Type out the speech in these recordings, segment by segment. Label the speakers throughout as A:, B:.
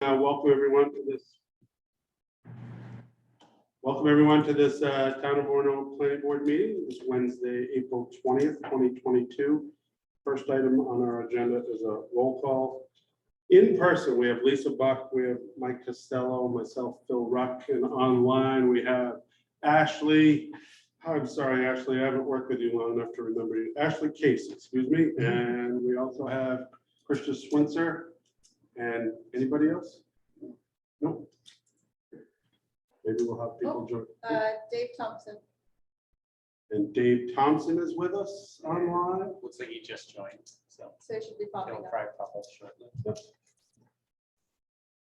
A: Uh, Welcome everyone to this. Welcome everyone to this uh, Town of Orno Planning Board meeting. It's Wednesday, April twentieth, twenty twenty-two. First item on our agenda is a roll call. In person, we have Lisa Buck, we have Mike Costello, myself, Phil Ruck, and online we have Ashley. I'm sorry, Ashley, I haven't worked with you long enough to remember you. Ashley Case, excuse me. And we also have Krista Switzer. And anybody else? No. Maybe we'll have people join.
B: Uh, Dave Thompson.
A: And Dave Thompson is with us online.
C: Looks like he just joined, so
B: So it should be popping
C: it'll
B: up.
C: probably pop up shortly.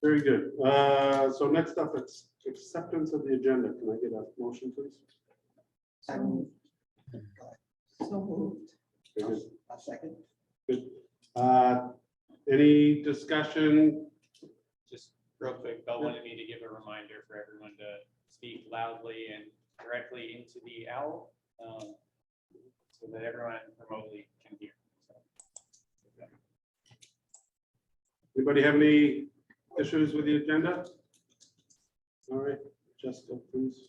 A: Very good. Uh, So next up, it's acceptance of the agenda. Can I get a motion, please?
D: I move. So moved.
A: Very good.
D: A second.
A: Uh, Any discussion?
C: Just real quick, Bill wanted me to give a reminder for everyone to speak loudly and directly into the owl. um, So that everyone remotely can hear. So,
A: Anybody have any issues with the agenda? All right, Jessica, please.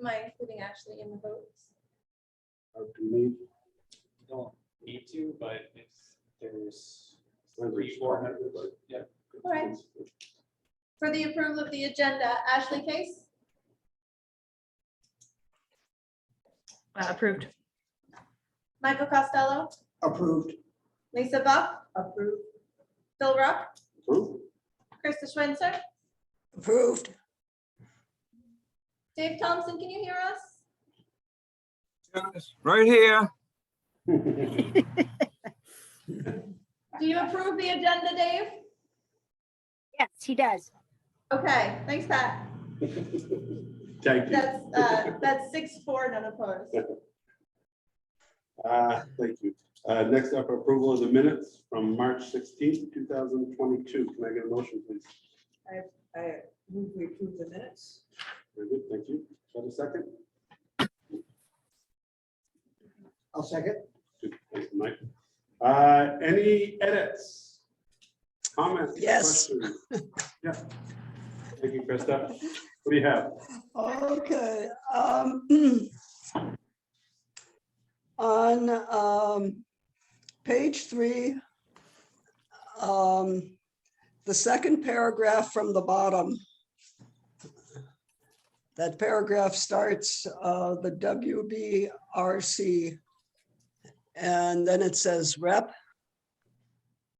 B: Am I including Ashley in the votes?
A: Uh, Do we need?
C: Don't need to, but if there's three,
A: language?
C: four hundred. Yeah,
B: All right. For the approval of the agenda, Ashley Case,
E: Uh, Approved.
B: Michael Costello,
D: Approved.
B: Lisa Buck,
D: Approved.
B: Phil Rupp,
A: Approved.
B: Krista Switzer,
D: Approved.
B: Dave Thompson, can you hear us?
F: Yes, Right here.
B: Do you approve the agenda, Dave?
G: Yes, he does.
B: Okay, thanks, Pat.
A: Thank you.
B: That's, uh, that's six, four, none opposed.
A: Uh, Thank you. Uh, Next up, approval of the minutes from March sixteenth, two thousand twenty-two. Can I get a motion, please?
D: I move we approve the minutes.
A: Very good, thank you. Have a second?
D: I'll second.
A: Good, Thank you, Mike. Uh, Any edits? Comments?
D: Yes.
A: questions? Yeah. Thank you, Krista. What do you have?
H: Okay, um. On, um, page three. Um, the second paragraph from the bottom. That paragraph starts, uh, the WBRC. And then it says rep.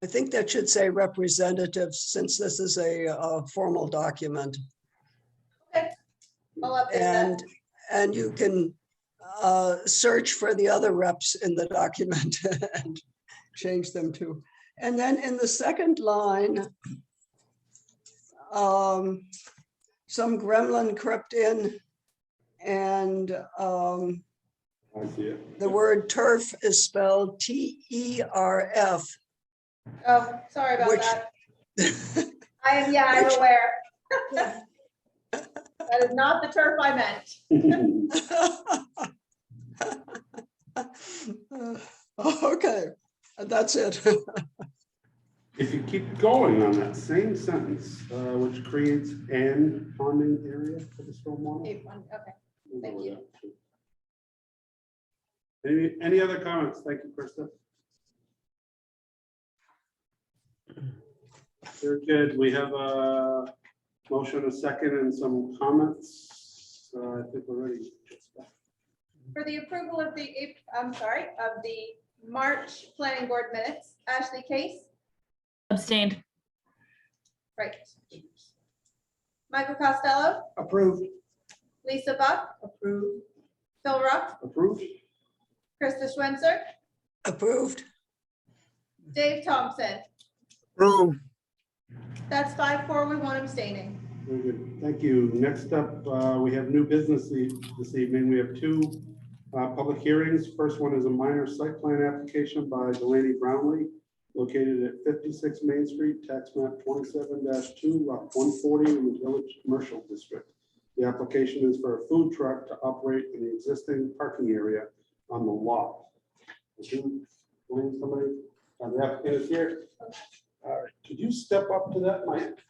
H: I think that should say representative, since this is a, uh formal document.
B: I'll update that.
H: And, and you can uh, search for the other reps in the document and change them to. And then in the second line, um, some gremlin crept in and um,
A: I see it.
H: the word turf is spelled T E R F.
B: Oh, sorry about
H: Which-
B: that. I am, yeah, I'm
H: which-
B: aware. That is not the turf I meant.
H: Okay, that's it.
A: If you keep going on that same sentence, uh, which creates an ponding area for the stormwater.
B: Eight, one, okay.
A: We'll go
B: Thank
A: with
B: you.
A: that, too. Any, any other comments? Thank you, Krista. Very good. We have a motion, a second, and some comments. So I think we're ready.
B: For the approval of the, Ap- I'm sorry, of the March planning board minutes, Ashley Case,
E: Abstained.
B: right. Michael Costello,
D: Approved.
B: Lisa Buck,
D: Approved.
B: Phil Ruff,
A: Approved?
B: Krista Switzer,
H: Approved.
B: Dave Thompson.
F: Approved.
B: That's five, four, with one abstaining.
A: Very good. Thank you. Next up, uh, we have new business e- this evening. We have two uh, public hearings. First one is a minor site plan application by Delaney Brownlee located at 56 Main Street, tax map 27-2, lot 140 in the Village Commercial District. The application is for a food truck to operate in the existing parking area on the lot. Would you Uh, believe somebody, uh, the applicant is here? All right. Could you step up to that mic?